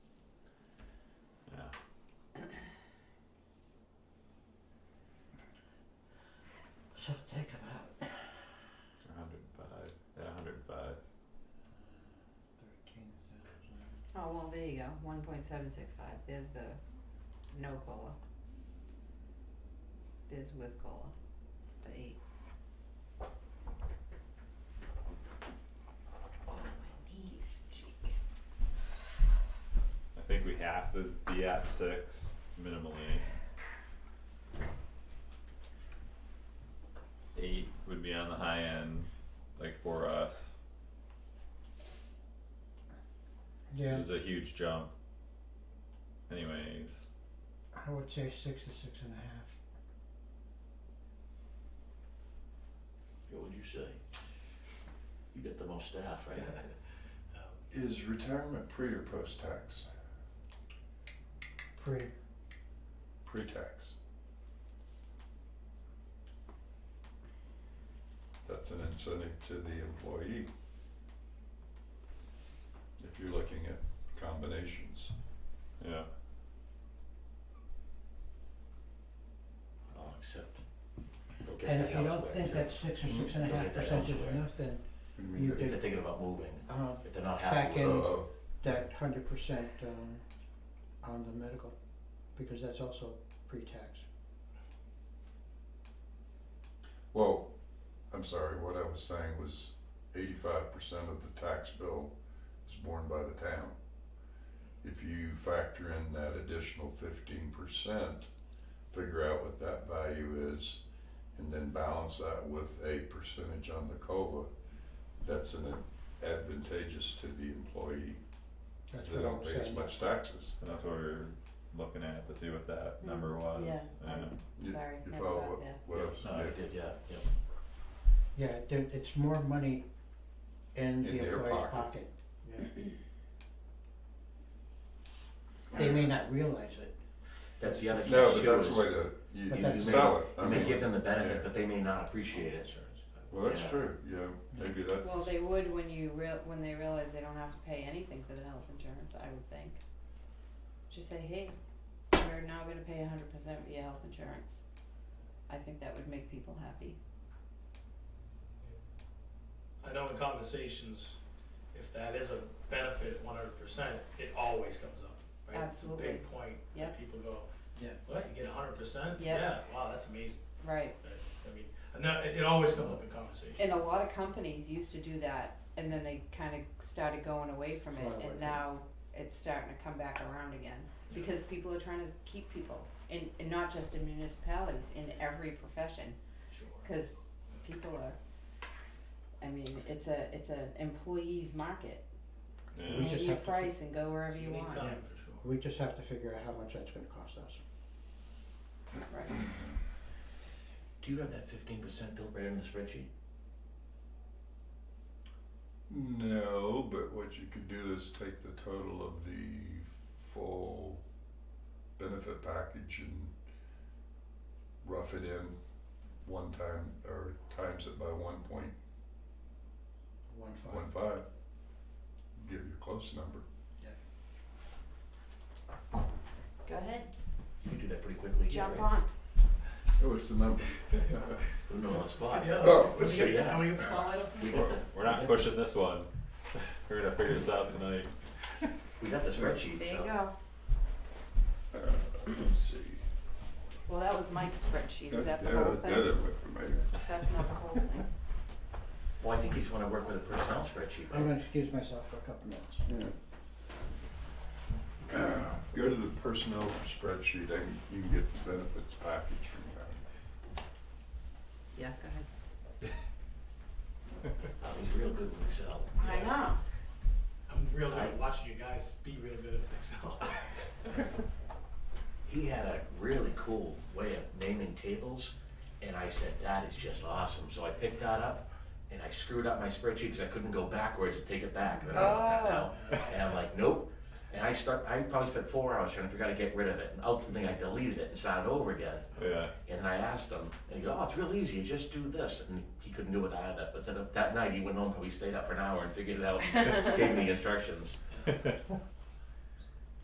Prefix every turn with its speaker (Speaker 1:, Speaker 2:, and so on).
Speaker 1: She'll take him out.
Speaker 2: hundred and five, yeah, hundred and five.
Speaker 1: Thirteen thousand.
Speaker 3: Oh, well, there you go, one point seven six five, there's the no cola. There's with cola, the eight. Oh, my knees, jeez.
Speaker 2: I think we have to be at six minimally. Eight would be on the high end, like for us,
Speaker 1: Yeah,
Speaker 2: this is a huge jump. Anyways,
Speaker 1: I would say six to six and a half.
Speaker 4: What would you say? You got the most staff, right?
Speaker 5: Is retirement pre or post-tax?
Speaker 1: Pre,
Speaker 5: Pre-tax. That's an incentive to the employee. If you're looking at combinations.
Speaker 2: yeah,
Speaker 4: I'll accept. Go get
Speaker 1: and
Speaker 4: that
Speaker 1: if you don't
Speaker 4: elsewhere,
Speaker 1: think
Speaker 4: too. Mm-hmm.
Speaker 1: that six or
Speaker 5: Mhm.
Speaker 1: six and a
Speaker 4: Don't
Speaker 1: half
Speaker 4: get that
Speaker 1: percent is
Speaker 4: elsewhere.
Speaker 1: enough, then,
Speaker 5: What do
Speaker 1: You
Speaker 5: mean?
Speaker 4: If they're thinking about moving,
Speaker 1: uh,
Speaker 4: if they're not
Speaker 1: Check
Speaker 4: happy with
Speaker 1: in.
Speaker 4: it.
Speaker 5: Uh-oh,
Speaker 1: that hundred percent, um, on the medical, because that's also pre-tax.
Speaker 5: well, I'm sorry, what I was saying was eighty-five percent of the tax bill is borne by the town. If you factor in that additional fifteen percent, figure out what that value is, and then balance that with a percentage on the COLA, that's an advantageous to the employee, 'cause
Speaker 1: That's
Speaker 5: they
Speaker 1: what I'm
Speaker 5: don't pay as
Speaker 1: saying.
Speaker 5: much taxes.
Speaker 2: and that's what we were looking at to see what that number was,
Speaker 3: yeah,
Speaker 2: yeah,
Speaker 3: um,
Speaker 5: You-
Speaker 3: Sorry,
Speaker 5: You
Speaker 3: never
Speaker 5: follow
Speaker 3: got
Speaker 5: what-
Speaker 3: there.
Speaker 5: what I was-
Speaker 4: No, I did, yeah, yeah.
Speaker 1: Yeah, there, it's more money in
Speaker 5: In
Speaker 1: the
Speaker 5: their
Speaker 1: employee's
Speaker 5: pocket.
Speaker 1: pocket, yeah. They may not realize it,
Speaker 4: That's the other catch too.
Speaker 5: No, but that's
Speaker 4: is
Speaker 5: the way to, you,
Speaker 1: But
Speaker 5: you
Speaker 1: that's-
Speaker 5: sell it, I
Speaker 4: You may
Speaker 5: mean,
Speaker 4: give them the benefit,
Speaker 5: yeah.
Speaker 4: but they may not appreciate it.
Speaker 5: well, that's
Speaker 4: Yeah.
Speaker 5: true, yeah, maybe that's.
Speaker 3: Well, they would when you real, when they realize they don't have to pay anything for the health insurance, I would think. Just say, hey, we're now gonna pay a hundred percent of your health insurance. I think that would make people happy.
Speaker 6: I know in conversations, if that is a benefit one hundred percent, it always comes up, right? It's a
Speaker 3: Absolutely.
Speaker 6: big point
Speaker 3: Yep.
Speaker 6: that people go,
Speaker 1: Yeah.
Speaker 6: what, you get hundred percent?
Speaker 3: Yep.
Speaker 6: Yeah, wow, that's amazing,
Speaker 3: Right,
Speaker 6: That- I mean, and that, it it always comes up in conversation.
Speaker 3: and a lot of companies used to do that, and then they kinda started going away from
Speaker 1: Going
Speaker 3: it,
Speaker 1: away from
Speaker 3: and
Speaker 1: it.
Speaker 3: now it's starting to come back around again. Because people are trying to s- keep people, and, and not just in municipalities, in every profession.
Speaker 6: Sure.
Speaker 3: Cause people are, I mean, it's a, it's an employee's market,
Speaker 2: yeah,
Speaker 1: We
Speaker 3: name
Speaker 1: just
Speaker 3: your
Speaker 1: have to fi-
Speaker 3: price and go wherever
Speaker 6: It's a
Speaker 3: you
Speaker 6: unique
Speaker 3: want, right.
Speaker 6: time, for sure.
Speaker 1: we just have to figure out how much that's gonna cost us.
Speaker 4: Do you have that fifteen percent built right in the spreadsheet?
Speaker 5: No, but what you could do is take the total of the full benefit package and rough it in one time or times it by one point
Speaker 1: One five,
Speaker 5: one five. Give you a close number.
Speaker 3: Go ahead,
Speaker 4: You can do that pretty quickly here,
Speaker 3: jump
Speaker 4: right?
Speaker 3: on,
Speaker 5: Oh, it's the number.
Speaker 4: Put it on the spot.
Speaker 6: Yeah.
Speaker 5: Oh,
Speaker 6: We get-
Speaker 4: yeah.
Speaker 6: and we can swallow it up.
Speaker 4: We
Speaker 2: we're,
Speaker 4: got the,
Speaker 2: we're not
Speaker 4: we got,
Speaker 2: pushing this one, we're gonna figure this out tonight,
Speaker 4: we got the spreadsheet,
Speaker 3: there you
Speaker 4: so.
Speaker 3: go,
Speaker 5: Uh, let's see.
Speaker 3: well, that was Mike's spreadsheet, is that the
Speaker 5: Yeah,
Speaker 3: whole
Speaker 5: yeah, that
Speaker 3: thing?
Speaker 5: went for me.
Speaker 3: That's not the whole thing,
Speaker 4: Well, I think you just wanna work with a personnel spreadsheet,
Speaker 1: I'm
Speaker 4: right?
Speaker 1: gonna excuse myself for a couple minutes.
Speaker 5: Yeah. Go to the personnel spreadsheet and you can get the benefits package from that.
Speaker 3: yeah, go ahead.
Speaker 4: Oh, He's real good with Excel.
Speaker 3: I know,
Speaker 6: I'm real good at watching you guys be real good at Excel.
Speaker 4: He had a really cool way of naming tables, and I said, that is just awesome. So I picked that up, and I screwed up my spreadsheet because I couldn't go backwards and take it back. But I don't want that now. And I'm like, nope. And I start, I probably spent four hours trying to figure out how to get rid of it. And ultimately, I deleted it and started over again.
Speaker 2: yeah,
Speaker 4: And then I asked him, and he goes, "Oh, it's real easy. You just do this." And he couldn't do it either. But then that night, he went home. Probably stayed up for an hour and figured it out. and gave me the instructions.